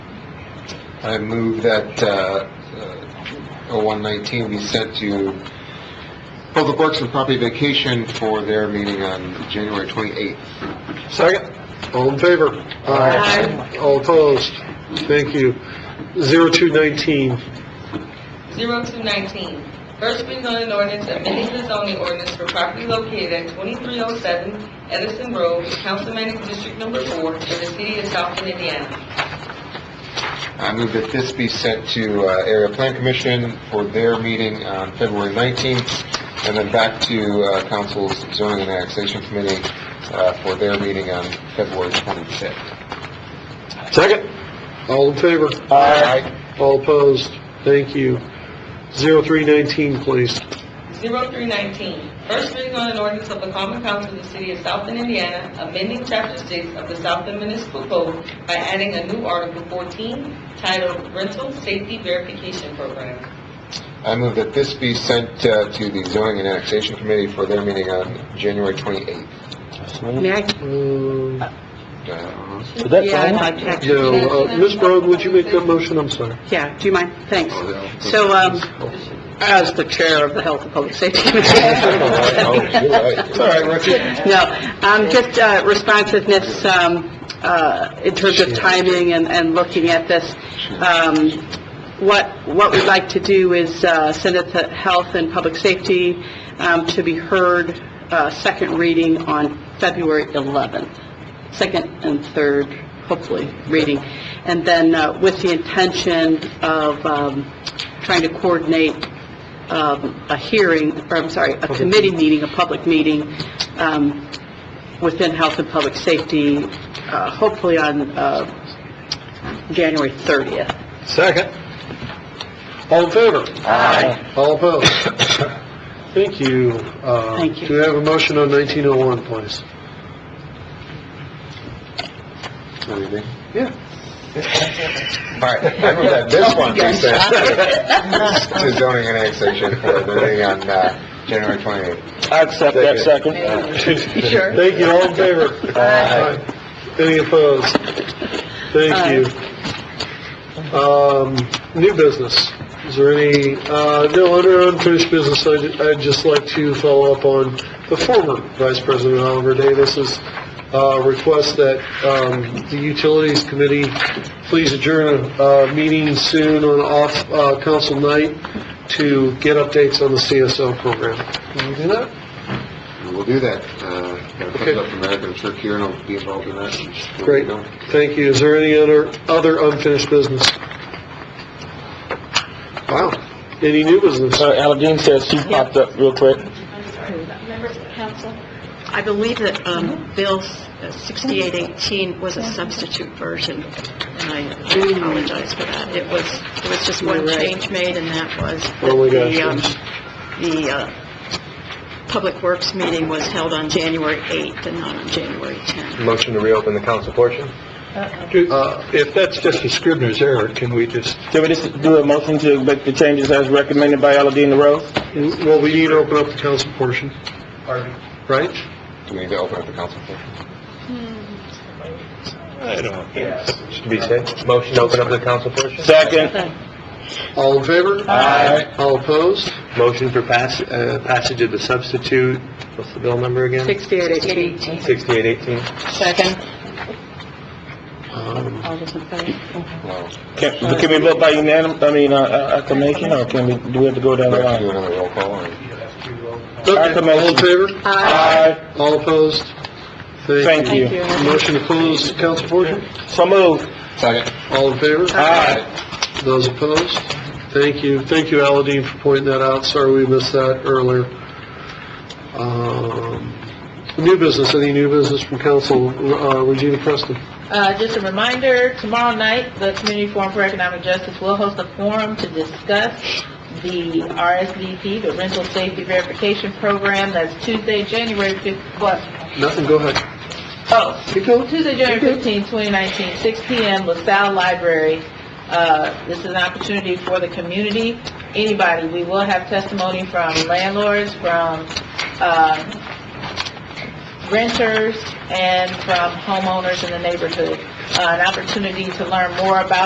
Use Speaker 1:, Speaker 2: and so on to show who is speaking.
Speaker 1: I move that, uh, uh, 0119 be sent to Public Works and Property Vacation for their meeting on January 28th.
Speaker 2: Second?
Speaker 3: All in favor?
Speaker 4: Aye.
Speaker 3: All opposed? Thank you. 0219,
Speaker 4: Zero two nineteen, first reading on an ordinance amending the zoning ordinance for property located at twenty-three oh seven Edison Road, Councilmanic District Number Four, in the city of Southton, Indiana.
Speaker 1: I move that this be sent to uh, Area Plan Commission for their meeting on February 19th, and then back to uh, Council's Zoning and Annexation Committee uh, for their meeting on February 25th.
Speaker 2: Second?
Speaker 3: all in favor?
Speaker 1: Aye.
Speaker 3: All opposed? Thank you. 0319, please.
Speaker 4: Zero three nineteen, first reading on an ordinance of the common council of the city of Southton, Indiana, amending chapter six of the Southton Municipal Code by adding a new article fourteen titled Rental Safety Verification Program.
Speaker 1: I move that this be sent uh, to the Zoning and Annexation Committee for their meeting on January 28th.
Speaker 5: May I,
Speaker 3: Um,
Speaker 1: Uh,
Speaker 5: yeah, I'd like to actually,
Speaker 3: No, uh, Ms. Brogue, would you make that motion? I'm sorry.
Speaker 5: yeah, do you mind? Thanks. So, um, as the chair of the Health and Public Safety Committee.
Speaker 1: It's all right, Richie.
Speaker 5: No, um, just uh, responsiveness, um, uh, in terms of timing and, and looking at this. Um, what, what we'd like to do is, uh, send it to Health and Public Safety, um, to be heard, uh, second reading on February 11th, second and third, hopefully, reading. And then, uh, with the intention of, um, trying to coordinate um, a hearing, or I'm sorry, a committee meeting, a public meeting, um, within Health and Public Safety, uh, hopefully on, uh, January 30th.
Speaker 2: Second?
Speaker 3: All in favor? Aye. All opposed? Thank you. Uh,
Speaker 5: Thank you.
Speaker 3: Do we have a motion on 1901, please?
Speaker 1: Anything?
Speaker 3: Yeah.
Speaker 1: All right, I move that this one be sent to Zoning and Annexation for their meeting on uh, January 28th.
Speaker 2: I accept that second.
Speaker 5: Sure.
Speaker 3: Thank you, all in favor?
Speaker 1: Aye.
Speaker 3: Any opposed? Thank you. Um, new business, is there any, uh, no, under unfinished business, I'd, I'd just like to follow up on the former Vice President Oliver Davis's, uh, request that, um, the Utilities Committee please adjourn a, uh, meeting soon on off, uh, council night to get updates on the CSO program. Can you do that?
Speaker 1: We'll do that. Uh, Gotta pick it up from Eric, I'm sure Kieran will be involved in that.
Speaker 3: Great, thank you. Is there any other, other unfinished business? Wow, any new business?
Speaker 2: Uh, Aladeen says she popped up real quick.
Speaker 6: Members of council,
Speaker 7: I believe that um, Bill s- uh, 6818 was a substitute version, and I do apologize for that. It was, it was just one change made, and that was
Speaker 3: Oh, my
Speaker 7: that the,
Speaker 3: gosh.
Speaker 7: um, the uh, Public Works meeting was held on January 8th and not on January 10th.
Speaker 1: Motion to reopen the council portion?
Speaker 3: Uh, If that's just a Scribner's error, can we just?
Speaker 2: Can we just do a motion to make the changes as recommended by Aladeen LaRose?
Speaker 3: Well, we need to open up the council portion. Right?
Speaker 1: Do we need to open up the council portion?
Speaker 8: Should be said. Motion to open up the council portion?
Speaker 2: Second?
Speaker 3: All in favor? Aye. All opposed?
Speaker 8: Motion for pass, uh, passage of the substitute, what's the bill number again?
Speaker 5: 6818.
Speaker 8: 6818.
Speaker 5: Second.
Speaker 3: Um,
Speaker 5: All those in favor?
Speaker 1: No.
Speaker 2: Can, can we vote by unanimous, I mean, uh, uh, acclamation, or can we, do we have to go down
Speaker 1: Do
Speaker 2: the
Speaker 1: we have to do
Speaker 2: line?
Speaker 1: another roll call, or?
Speaker 3: Okay, all in favor?
Speaker 2: Aye.
Speaker 3: All opposed?
Speaker 2: Thank you.
Speaker 3: Motion to close the council portion?
Speaker 2: So moved.
Speaker 1: Second.
Speaker 3: All in favor?
Speaker 2: Aye.
Speaker 3: Those opposed? Thank you. Thank you, Aladeen, for pointing that out. Sorry we missed that earlier. Um, New business, any new business from council? Uh, Regina Preston?
Speaker 6: uh, just a reminder, tomorrow night, the Community Forum for Economic Justice will host a forum to discuss the RSVP, the Rental Safety Verification Program. That's Tuesday, January 5th, what,
Speaker 3: Nothing, go ahead.
Speaker 6: oh,
Speaker 3: Keep going.
Speaker 6: Tuesday, January 15, 2019, 6 PM, LaSalle Library. Uh, This is an opportunity for the community, anybody. We will have testimony from landlords, from um, renters, and from homeowners in the neighborhood. Uh, An opportunity to learn more about